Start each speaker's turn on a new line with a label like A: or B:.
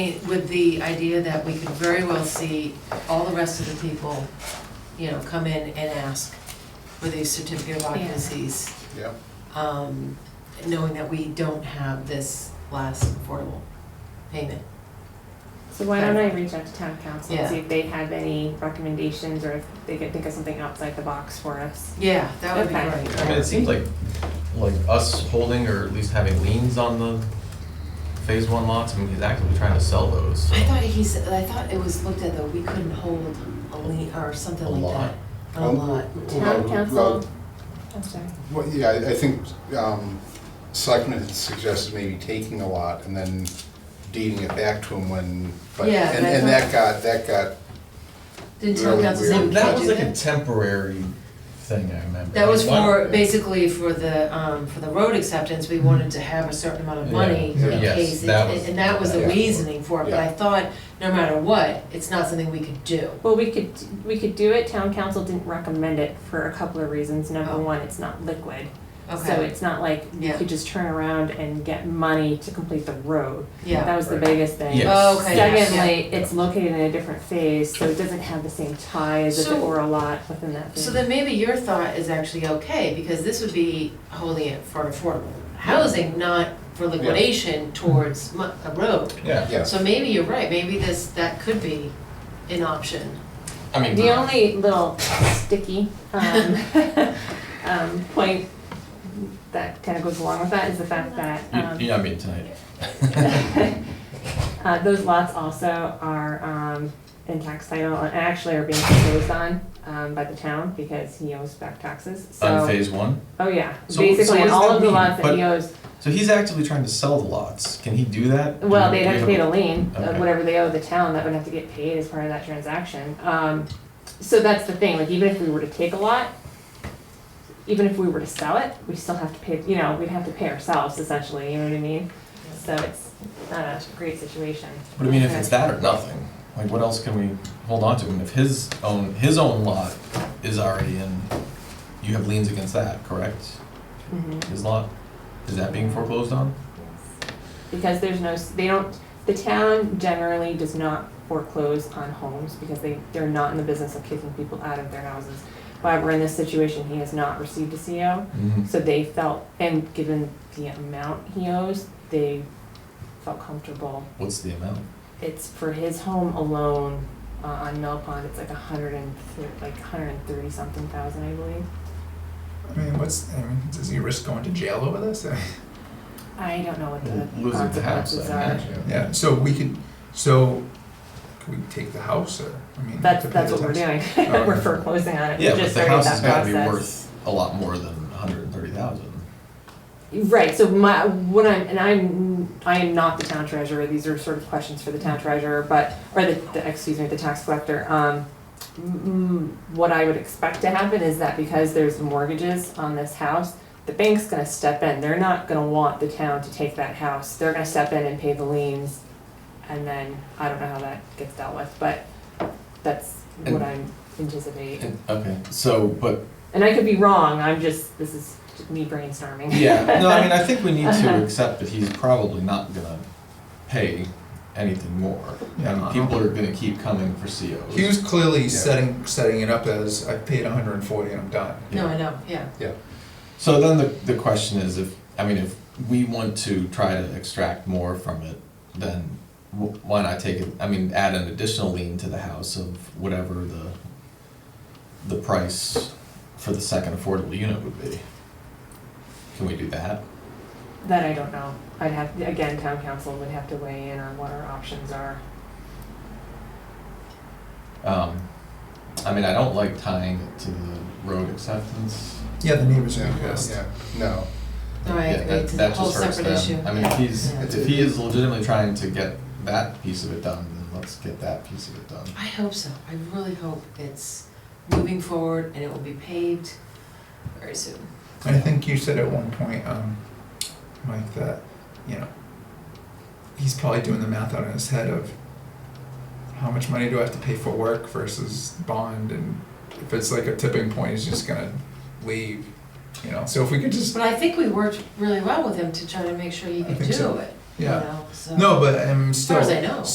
A: With the idea that we could very well see all the rest of the people, you know, come in and ask for these certificate of occupancies,
B: Yeah,
A: um, knowing that we don't have this last affordable payment.
C: So why don't I reach out to town council
A: Yeah.
C: and see if they have any recommendations or if they could think of something outside the box for us?
A: Yeah, that would be
C: Okay.
A: great.
D: I mean, it seems like, like us holding or at least having liens on the phase one lots, I mean, he's actively trying to sell those, so.
A: I thought he said, I thought it was looked at though, we couldn't hold a lien or something
D: A
A: like
D: lot.
A: that. on A
B: Um,
A: lot.
B: Well,
C: Town
B: well-
C: council, I'm sorry,
B: well, yeah, I I think, um, Selectmen had suggested maybe taking a lot and then deeding it back to him when, but,
A: Yeah,
B: and,
A: that's
B: and
A: what-
B: that got, that got,
A: Didn't town
B: Really
A: council say
B: weird.
A: we
B: Well,
A: can't do that?
D: That was like a temporary thing, I remember.
A: That was
D: Like, why
A: for,
D: don't-
A: basically for the, um, for the road acceptance, we wanted to have a certain amount of
D: Yeah.
A: money in
B: Yeah.
D: Yes,
A: case, it-
D: that was-
A: and that was the
B: yeah.
A: reasoning for it, but I
B: Yeah.
A: thought, no matter what, it's not something we could do.
C: well, we could, we could do it, town council didn't recommend it for a couple of reasons, number
A: Oh.
C: one, it's not liquid. So
A: Okay,
C: it's not like you
A: Yeah.
C: could just turn around and get money to complete the road,
A: yeah,
C: that was the
B: Right.
C: biggest thing.
D: Yes.
A: Oh, okay, yeah, yeah.
C: Secondly, it's located in a different phase, so it doesn't have the same tie as if it
A: So-
C: were a lot within that phase.
A: so then maybe your thought is actually okay, because this would be holding it for affordable housing, not for liquidation towards mu- a road.
D: Yeah,
B: yeah.
A: So maybe you're right, maybe this, that could be an option.
D: I mean.
C: The only little sticky um, um, point that kind of goes along with that is the fact that um,
D: You, are not being tonight.
C: uh, those lots also are um, in tax title and actually are being foreclosed on um, by the town because he owes back taxes. So
D: On phase one,
C: oh yeah,
D: So- so
C: basically
D: what does
C: all
D: that
C: of the
D: mean?
C: lots that he
D: But-
C: owes.
D: so he's actively trying to sell the lots, can he do that?
C: Well,
D: Do
C: they'd have to
D: we
C: pay the lien,
D: Okay.
C: of whatever they owe the town, that would have to get paid as part of that transaction. Um, so that's the thing, like even if we were to take a lot, even if we were to sell it, we still have to pay, you know, we'd have to pay ourselves essentially, you know what I mean? So it's not a great situation.
D: But I mean, if it's that or nothing, like what else can we hold on to? And if his own, his own lot is already in, you have liens against that, correct?
C: Mhm.
D: His lot, is that being foreclosed on?
C: Because there's no, s- they don't, the town generally does not foreclose on homes because they, they're not in the business of kicking people out of their houses. However, in this situation, he has not received a CO.
D: Mm-hmm.
C: So they felt, and given the amount he owes, they felt comfortable.
D: What's the amount?
C: It's for his home alone uh, on Mill Pond. It's like a hundred and thir- like a hundred and thirty something thousand, I believe.
E: I mean, what's, I mean, does he risk going to jail over this?
C: I don't know what the
D: Losing the house,
C: consequences
D: I
C: are.
D: imagine.
E: Yeah, so we could, so, can we take the house or, I mean?
C: That's
E: to pay
C: that's
E: the
C: what we're
E: tax?
C: doing.
E: Oh,
C: we're
E: okay.
C: foreclosing on it.
D: Yeah,
C: we
D: but
C: just
D: the
C: started
D: house
C: that
D: is gotta be
C: process.
D: worth a lot more than hundred and thirty thousand.
C: Right, so my, what I'm, and I'm, I am not the town treasurer, these are sort of questions for the town treasurer, but, or the, the, excuse me, the tax collector. Um, mm, what I would expect to happen is that because there's mortgages on this house, the bank's gonna step in, they're not gonna want the town to take that house, they're gonna step in and pay the liens. And then, I don't know how that gets dealt with, but that's what
D: And-
C: I'm anticipating.
D: Okay, so, but,
C: And I could be wrong, I'm just, this is me brainstorming.
D: yeah, no, I mean, I think we need to accept that he's probably not gonna pay anything more. I mean, people are gonna keep coming for COs.
E: He was clearly
B: Yeah.
E: setting, setting it up as, I paid hundred and forty and I'm done.
A: No, I know, yeah.
D: So then the, the question is if, I mean, if we want to try to extract more from it, then wh- why not take it, I mean, add an additional lien to the house of whatever the, the price for the second affordable unit would be? Can we do that?
C: That I don't know. I'd have, again, town council would have to weigh in on what our options are.
D: Um, I mean, I don't like tying it to the road acceptance.
E: Yeah, the neighbors are
B: Yeah,
E: pissed.
B: yeah, no,
A: No, I
D: Yeah,
A: agree,
D: that-
A: it's a
D: that
A: whole
D: just hurts
A: separate issue.
D: them. I mean, if he's,
A: Yeah.
D: if he is legitimately trying to get that piece of it done, then let's get that piece of it done.
A: I hope so, I really hope it's moving forward and it will be paved very soon.
E: And I think you said at one point, um, Mike, that, you know, he's probably doing the math out in his head of how much money do I have to pay for work versus bond, and if it's like a tipping point, he's just gonna leave, you know, so if we could just,
A: But I think we worked really well with him to try to make sure you
E: I
A: could
E: think
A: do
E: so.
A: it, you
E: yeah.
A: know, so.
E: No, but I'm
A: As
E: still.
A: far as I know.